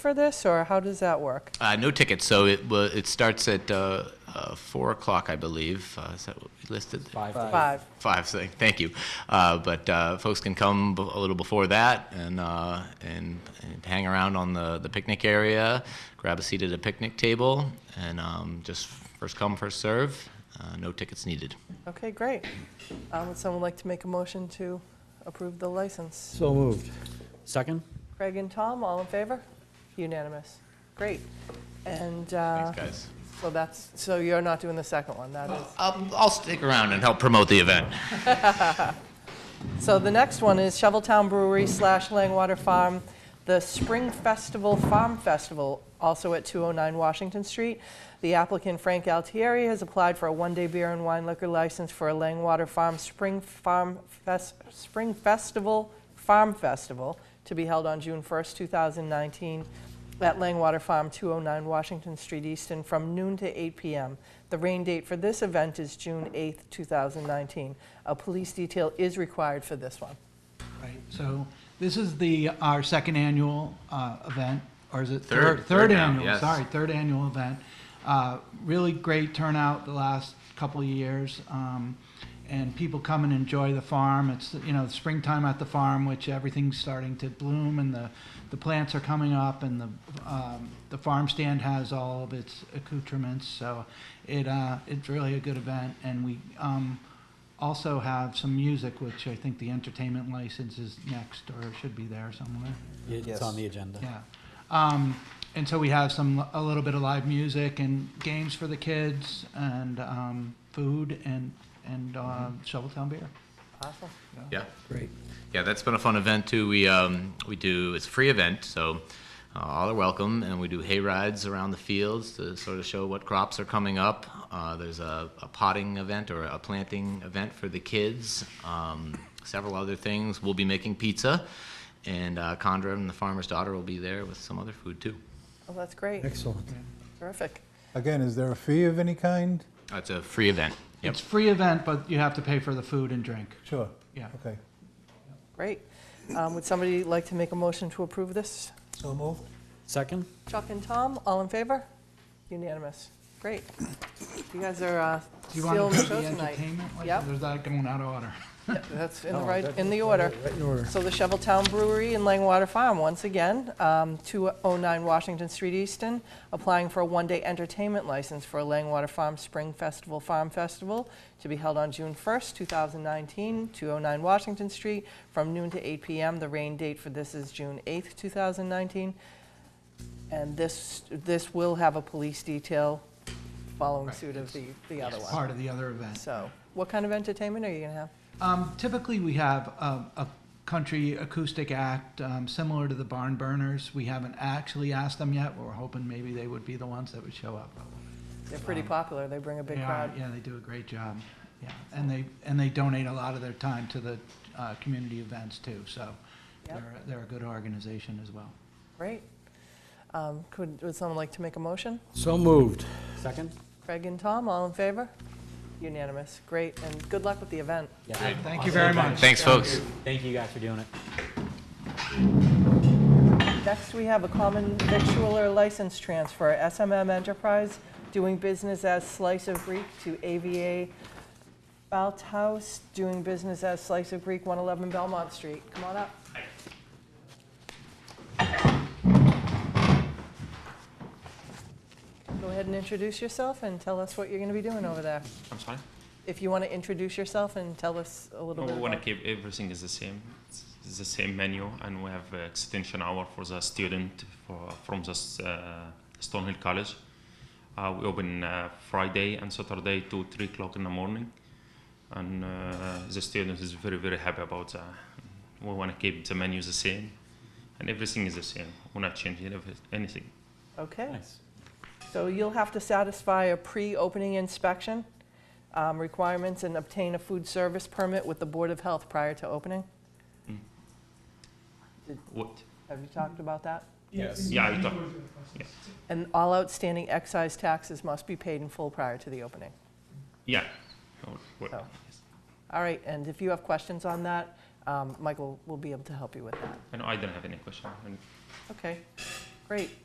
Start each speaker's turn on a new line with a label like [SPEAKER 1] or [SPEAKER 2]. [SPEAKER 1] for this, or how does that work?
[SPEAKER 2] Uh, no tickets, so it will, it starts at uh, uh, four o'clock, I believe. Uh, is that what we listed?
[SPEAKER 3] Five.
[SPEAKER 1] Five.
[SPEAKER 2] Five. So thank you. Uh, but uh, folks can come b- a little before that and, uh, and and hang around on the the picnic area, grab a seat at a picnic table, and um, just first come first serve. Uh, no tickets needed.
[SPEAKER 1] Okay, great. Um, Would someone like to make a motion to approve the license?
[SPEAKER 4] So moved.
[SPEAKER 3] Second?
[SPEAKER 1] Craig and Tom, all in favor? Unanimous. Great. And uh,
[SPEAKER 2] Thanks, guys.
[SPEAKER 1] so that's, so you're not doing the second one, that is.
[SPEAKER 2] Uh, I'll, I'll stick around and help promote the event.
[SPEAKER 1] So the next one is Shoveltown Brewery slash Langwater Farm, the Spring Festival Farm Festival, also at 209 Washington Street. The applicant Frank Altieri has applied for a one-day beer and wine liquor license for a Langwater Farm Spring Farm Fest, Spring Festival Farm Festival to be held on June 1st, 2019 at Langwater Farm, 209 Washington Street, Easton, from noon to 8 p.m. The rain date for this event is June 8th, 2019. A police detail is required for this one.
[SPEAKER 5] Right, so this is the, our second annual uh, event, or is it?
[SPEAKER 2] Third, third
[SPEAKER 5] Third
[SPEAKER 2] now,
[SPEAKER 5] annual,
[SPEAKER 2] yes.
[SPEAKER 5] sorry, third annual event. Uh, Really great turnout the last couple of years, um, and people come and enjoy the farm. It's, you know, springtime at the farm, which everything's starting to bloom, and the, the plants are coming up, and the, um, the farm stand has all of its accoutrements, so it, uh, it's really a good event, and we, um, also have some music, which I think the entertainment license is next or should be there somewhere.
[SPEAKER 3] It's on the agenda.
[SPEAKER 5] Yeah. Um, and so we have some, a little bit of live music and games for the kids and, um, food and, and, uh, Shoveltown beer.
[SPEAKER 1] Awesome.
[SPEAKER 2] Yeah.
[SPEAKER 4] Great.
[SPEAKER 2] Yeah, that's been a fun event too. We um, we do it's a free event, so uh, all are welcome, and we do hay rides around the fields to sort of show what crops are coming up. Uh, there's a, a potting event or a planting event for the kids. Um, several other things. We'll be making pizza, and uh, Condra and the farmer's daughter will be there with some other food too.
[SPEAKER 1] Well, Oh, that's great.
[SPEAKER 4] Excellent.
[SPEAKER 1] Terrific.
[SPEAKER 6] Again, is there a fee of any kind?
[SPEAKER 2] That's a free event. Yep.
[SPEAKER 5] It's free event, but you have to pay for the food and drink.
[SPEAKER 6] Sure.
[SPEAKER 5] Yeah.
[SPEAKER 6] Okay.
[SPEAKER 1] Great. Um, would somebody like to make a motion to approve this?
[SPEAKER 6] So moved.
[SPEAKER 3] Second?
[SPEAKER 1] Chuck and Tom, all in favor? Unanimous. Great. You guys are uh,
[SPEAKER 5] Do you want
[SPEAKER 1] still in
[SPEAKER 5] to
[SPEAKER 1] the
[SPEAKER 5] do the
[SPEAKER 1] show tonight.
[SPEAKER 5] entertainment? license,
[SPEAKER 1] Yep.
[SPEAKER 5] Or is that going out of order?
[SPEAKER 1] That's in the
[SPEAKER 4] No,
[SPEAKER 1] right,
[SPEAKER 4] Oh, that's-
[SPEAKER 1] in the order.
[SPEAKER 4] Right in order.
[SPEAKER 1] So the Shoveltown Brewery in Langwater Farm, once again, um, 209 Washington Street, Easton, applying for a one-day entertainment license for a Langwater Farm Spring Festival Farm Festival to be held on June 1st, 2019, 209 Washington Street, from noon to 8 p.m. The rain date for this is June 8th, 2019. And this, this will have a police detail following
[SPEAKER 5] Right,
[SPEAKER 1] suit of the, the other one.
[SPEAKER 5] Part of the other event.
[SPEAKER 1] So what kind of entertainment are you going to have?
[SPEAKER 5] Um, typically, we have a, a country acoustic act um, similar to the Barn Burners. We haven't actually asked them yet. We're hoping maybe they would be the ones that would show up.
[SPEAKER 1] They're pretty popular. They bring a big
[SPEAKER 5] Um, They are-
[SPEAKER 1] crowd.
[SPEAKER 5] Yeah, they do a great job. Yeah, and they and they donate a lot of their time to the uh, community events too. So
[SPEAKER 1] Yep.
[SPEAKER 5] they're they're a good organization as well.
[SPEAKER 1] Great. Um, Could, would someone like to make a motion?
[SPEAKER 4] So moved.
[SPEAKER 3] Second?
[SPEAKER 1] Craig and Tom, all in favor? Unanimous, great, and good luck with the event.
[SPEAKER 3] Yeah.
[SPEAKER 5] Thank you very much.
[SPEAKER 2] Thanks, folks.
[SPEAKER 3] Thank you guys for doing it.
[SPEAKER 1] Next, we have a common victualler license transfer, SMM Enterprise, doing business as Slice of Greek to AVA Balthouse, doing business as Slice of Greek, 111 Belmont Street. Come on up. Go ahead and introduce yourself and tell us what you're going to be doing over there.
[SPEAKER 7] I'm sorry.
[SPEAKER 1] If you want to introduce yourself and tell us a little
[SPEAKER 7] we
[SPEAKER 1] bit
[SPEAKER 7] want to
[SPEAKER 1] about...
[SPEAKER 7] keep everything is the same. It's it's the same menu, and we have uh, extension hour for the student for, from the s- uh, Stonehill College. Uh, we open uh, Friday and Saturday to three o'clock in the morning, and uh, the student is very very happy about that. We want to keep the menu the same, and everything is the same. We're not changing every- anything.
[SPEAKER 1] Okay.
[SPEAKER 3] Nice.
[SPEAKER 1] So you'll have to satisfy a pre-opening inspection um, requirements and obtain a food service permit with the Board of Health prior to opening.
[SPEAKER 7] What?
[SPEAKER 1] Have you talked about that?
[SPEAKER 7] Yeah, I talk.
[SPEAKER 1] And all outstanding excise taxes must be paid in full prior to the opening.
[SPEAKER 7] Yeah. Oh, what-
[SPEAKER 1] So. All right, and if you have questions on that, um, Michael will be able to help you with that.
[SPEAKER 7] I know I don't have any question.
[SPEAKER 1] Okay, Great.